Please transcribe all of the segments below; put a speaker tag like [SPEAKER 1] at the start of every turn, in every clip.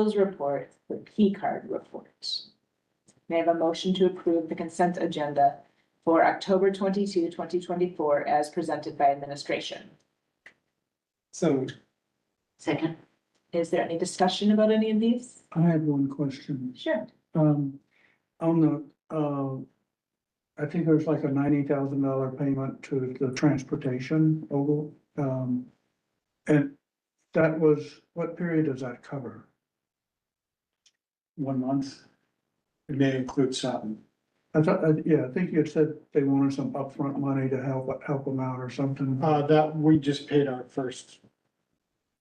[SPEAKER 1] Those reports, the P card reports. May I have a motion to approve the consent agenda for October 22, 2024, as presented by administration?
[SPEAKER 2] So moved.
[SPEAKER 3] Second.
[SPEAKER 1] Is there any discussion about any of these?
[SPEAKER 2] I had one question.
[SPEAKER 1] Sure.
[SPEAKER 2] Um, on the, uh, I think there's like a ninety thousand dollar payment to the transportation, Ogle. Um, and that was, what period does that cover? One month?
[SPEAKER 4] It may include something.
[SPEAKER 2] I thought, uh, yeah, I think you had said they wanted some upfront money to help, help them out or something.
[SPEAKER 4] Uh, that, we just paid our first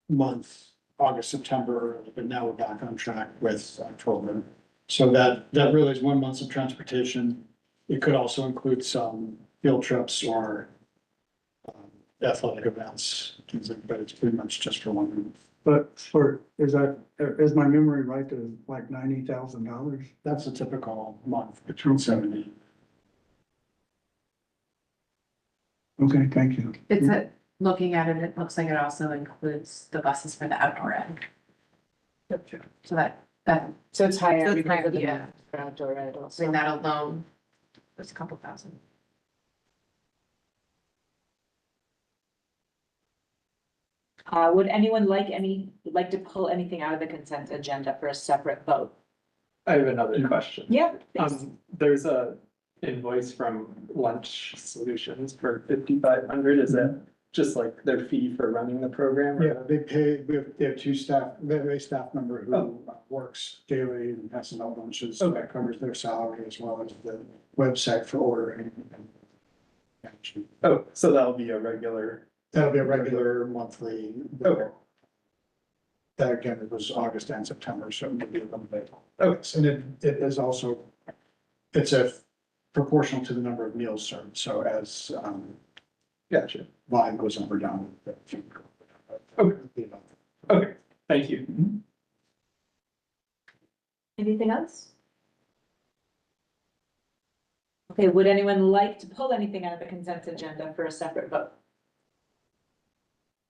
[SPEAKER 4] month, August, September, but now we're back on track with October. So that, that really is one month of transportation. It could also include some field trips or um, athletic events, things like, but it's pretty much just for one month.
[SPEAKER 2] But for, is that, is my memory right to like ninety thousand dollars?
[SPEAKER 4] That's a typical month, between seventy.
[SPEAKER 2] Okay, thank you.
[SPEAKER 3] It's a, looking at it, it looks like it also includes the buses for the outdoor end. So that, that,
[SPEAKER 1] So it's higher
[SPEAKER 3] So it's
[SPEAKER 1] because
[SPEAKER 3] higher,
[SPEAKER 1] of the
[SPEAKER 3] yeah.
[SPEAKER 1] outdoor ed
[SPEAKER 3] I
[SPEAKER 1] also.
[SPEAKER 3] mean, that alone was a couple thousand.
[SPEAKER 1] Uh, would anyone like any, like to pull anything out of the consent agenda for a separate vote?
[SPEAKER 5] I have another question.
[SPEAKER 1] Yeah. please.
[SPEAKER 5] Um, there's a invoice from Lunch Solutions for fifty-five hundred. Is
[SPEAKER 1] Mm-hmm.
[SPEAKER 5] that just like their fee for running the program? or-
[SPEAKER 4] Yeah, they pay, we have, they have two staff, they have a staff member who
[SPEAKER 5] Oh.
[SPEAKER 4] works daily and has some lunches, so that covers their salary as well as the website for ordering. and-
[SPEAKER 5] Oh, so that'll be a regular,
[SPEAKER 4] That'll be a regular monthly.
[SPEAKER 5] Okay.
[SPEAKER 4] That again, it was August and September, so it would be a little bit.
[SPEAKER 5] Okay.
[SPEAKER 4] And it, it is also, it's a proportional to the number of meals served, so as, um,
[SPEAKER 5] gotcha.
[SPEAKER 4] volume goes up or down.
[SPEAKER 5] Okay. Okay, thank you.
[SPEAKER 1] Anything else? Okay, would anyone like to pull anything out of the consent agenda for a separate vote?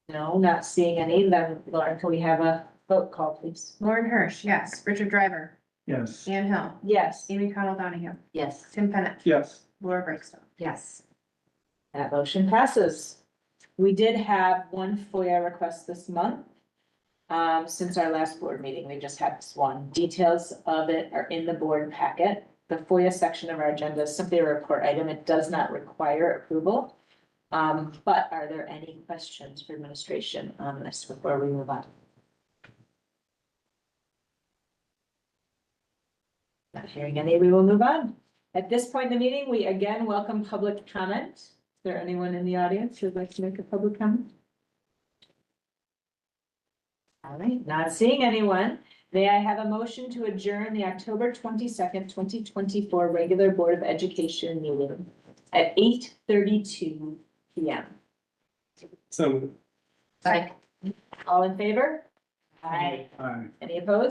[SPEAKER 1] No, not seeing any, then Lauren, can we have a vote call, please?
[SPEAKER 3] Lauren Hirsch, yes. Richard Driver,
[SPEAKER 2] Yes.
[SPEAKER 3] Ann Hill,
[SPEAKER 1] Yes.
[SPEAKER 3] Amy Cottle Donahue,
[SPEAKER 1] Yes.
[SPEAKER 3] Tim Pennett,
[SPEAKER 5] Yes.
[SPEAKER 3] Laura Brinkstone. Yes.
[SPEAKER 1] That motion passes. We did have one FOIA request this month. Um, since our last board meeting, we just had this one. Details of it are in the board packet. The FOIA section of our agenda is simply a report item. It does not require approval. Um, but are there any questions for administration on this before we move on? Not hearing any, we will move on. At this point in the meeting, we again welcome public comment. Is there anyone in the audience who'd like to make a public comment? All right, not seeing anyone. May I have a motion to adjourn the October twenty-second, twenty twenty-four regular Board of Education meeting at eight thirty-two P M.
[SPEAKER 5] So
[SPEAKER 3] Second.
[SPEAKER 1] All in favor? Aye.
[SPEAKER 2] Aye.
[SPEAKER 1] Any opposed?